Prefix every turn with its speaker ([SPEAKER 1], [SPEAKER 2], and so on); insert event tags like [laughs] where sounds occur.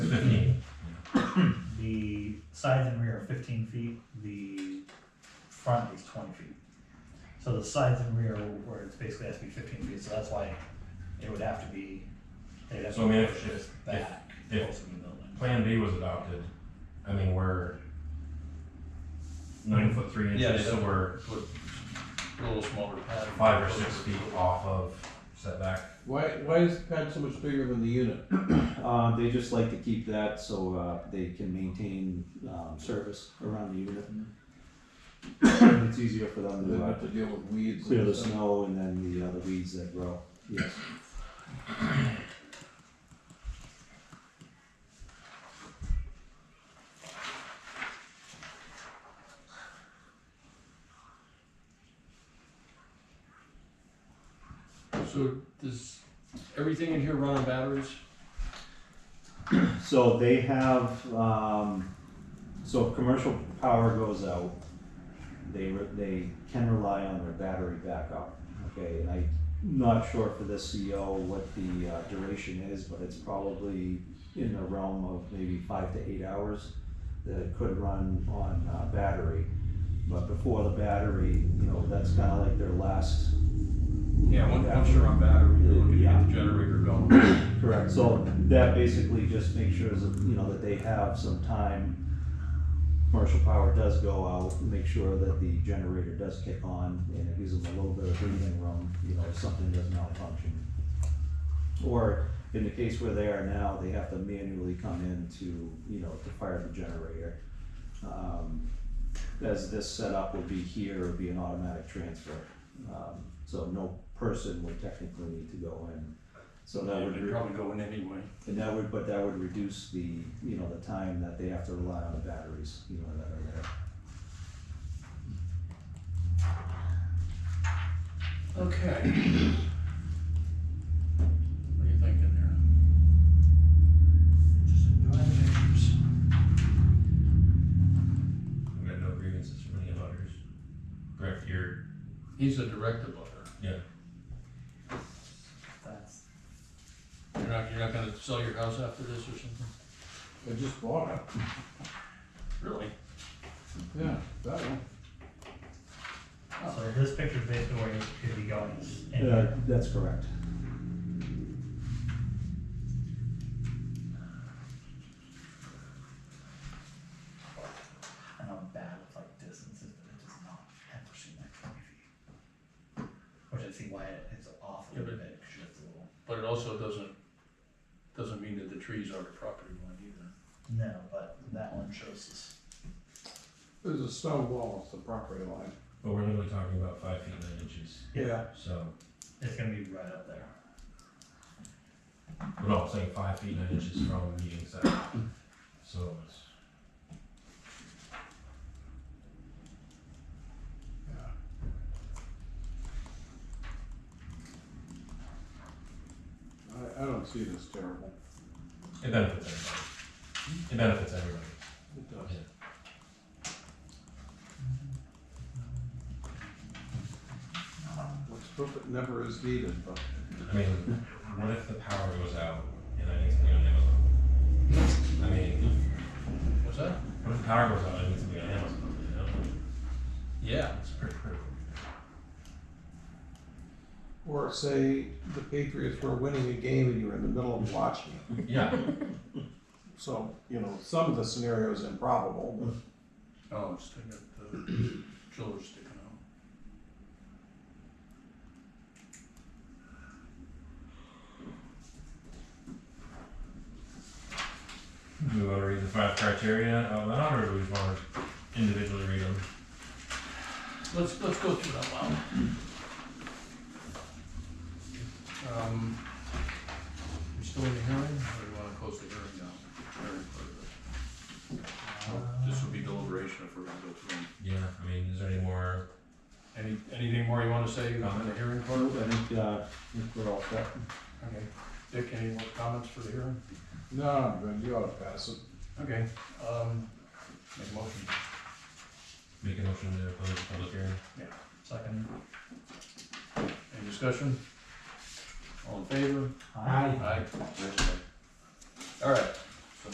[SPEAKER 1] sides and rear are fifteen feet, the front is twenty feet. So the sides and rear, where it's basically has to be fifteen feet, so that's why it would have to be, they'd have
[SPEAKER 2] So I mean,
[SPEAKER 1] to
[SPEAKER 2] if-
[SPEAKER 1] push this
[SPEAKER 2] if-
[SPEAKER 1] back
[SPEAKER 2] if-
[SPEAKER 1] closer to the building.
[SPEAKER 2] Plan B was adopted, I mean, we're nine foot three
[SPEAKER 3] Yeah,
[SPEAKER 2] inches, so
[SPEAKER 3] yeah.
[SPEAKER 2] we're
[SPEAKER 3] Put a little smaller pad.
[SPEAKER 2] five or six feet off of setback.
[SPEAKER 4] Why, why is the pad so much bigger than the unit?
[SPEAKER 5] Uh, they just like to keep that so uh, they can maintain um, service around the unit. it's easier for them
[SPEAKER 4] They
[SPEAKER 5] to uh,
[SPEAKER 4] have to deal with weeds.
[SPEAKER 5] clear the
[SPEAKER 4] and stuff.
[SPEAKER 5] snow and then the other weeds that grow. Yes.
[SPEAKER 3] So does everything in here run on batteries?
[SPEAKER 5] So they have, um, so if commercial power goes out, they, re- they can rely on their battery backup, okay? And I'm not sure for this CO what the uh, duration is, but it's probably in the realm of maybe five to eight hours that it could run on, uh, battery. But before the battery, you know, that's kinda like their last
[SPEAKER 3] Yeah, once, once you're on battery, you're looking to get the generator going.
[SPEAKER 5] Correct, so that basically just makes sure, is, you know, that they have some time. Commercial power does go out, make sure that the generator does kick on, and it gives them a little bit of breathing room, you know, if something does malfunction. Or in the case where they are now, they have to manually come in to, you know, to fire the generator. Um, As this setup would be here, it would be an automatic transfer, um, so no person would technically need to go in. So that would.
[SPEAKER 3] They'd
[SPEAKER 5] re-
[SPEAKER 3] probably go in anyway.
[SPEAKER 5] and that would, but that would reduce the, you know, the time that they have to rely on the batteries, you know, that are there.
[SPEAKER 3] Okay. What do you think in there? Just enjoy the pictures.
[SPEAKER 2] We got no grievances from any abutters. Correct, you're,
[SPEAKER 3] He's a direct abutter.
[SPEAKER 2] yeah,
[SPEAKER 1] That's,
[SPEAKER 3] You're not, you're not gonna sell your house after this or something?
[SPEAKER 4] I just bought it,
[SPEAKER 3] Really?
[SPEAKER 4] yeah, that one.
[SPEAKER 1] so this picture is basically where it could be going. is in
[SPEAKER 5] Uh,
[SPEAKER 1] here.
[SPEAKER 5] that's correct.
[SPEAKER 1] I know I'm bad with like distances, but it does not ever seem like twenty feet. Which I see why it- it's off a
[SPEAKER 3] Yeah,
[SPEAKER 1] little
[SPEAKER 3] but-
[SPEAKER 1] bit, because it's a little,
[SPEAKER 3] But it also doesn't, doesn't mean that the trees are the property line either.
[SPEAKER 1] no, but that one shows us.
[SPEAKER 4] There's a stone wall, it's the property line.
[SPEAKER 2] but we're literally talking about five feet nine inches,
[SPEAKER 1] Yeah.
[SPEAKER 2] so,
[SPEAKER 1] It's gonna be right up there.
[SPEAKER 2] but all I'm saying five feet nine inches from meeting setback. So it's,
[SPEAKER 4] Yeah. I, I don't see it as terrible.
[SPEAKER 2] it benefits everybody. It benefits everybody.
[SPEAKER 4] It does. Let's hope it never is needed, but
[SPEAKER 2] I mean, what if the power goes out and I need something on Amazon? I mean,
[SPEAKER 3] What's that?
[SPEAKER 2] what if the power Oh, goes out and I need something on Amazon, you know?
[SPEAKER 3] Yeah.
[SPEAKER 2] That's pretty critical.
[SPEAKER 4] Or say the Patriots were winning a game and you were in the middle of watching it.
[SPEAKER 2] Yeah,
[SPEAKER 4] So, you know, some of the scenarios improbable, but
[SPEAKER 3] Oh, it's sticking, the [coughs] chiller's sticking out.
[SPEAKER 2] [laughs] do we wanna read the five criteria out loud or do we just wanna individually read them?
[SPEAKER 3] Let's, let's go through that loud. Um, we still in the hearing, or do you wanna close the hearing down? Hearing further. This would be deliberation if we're gonna go through them.
[SPEAKER 2] Yeah, I mean, is there any more?
[SPEAKER 3] Any, anything more you wanna say on the hearing part?
[SPEAKER 5] I think, uh, I think we're all set.
[SPEAKER 3] Okay, Dick, any more comments for the hearing?
[SPEAKER 4] no, but you ought to pass it.
[SPEAKER 3] Okay, um, make a motion,
[SPEAKER 2] Make a motion to close the public hearing?
[SPEAKER 1] Second.
[SPEAKER 3] any discussion? All in favor?
[SPEAKER 1] Aye.
[SPEAKER 3] Aye. All right,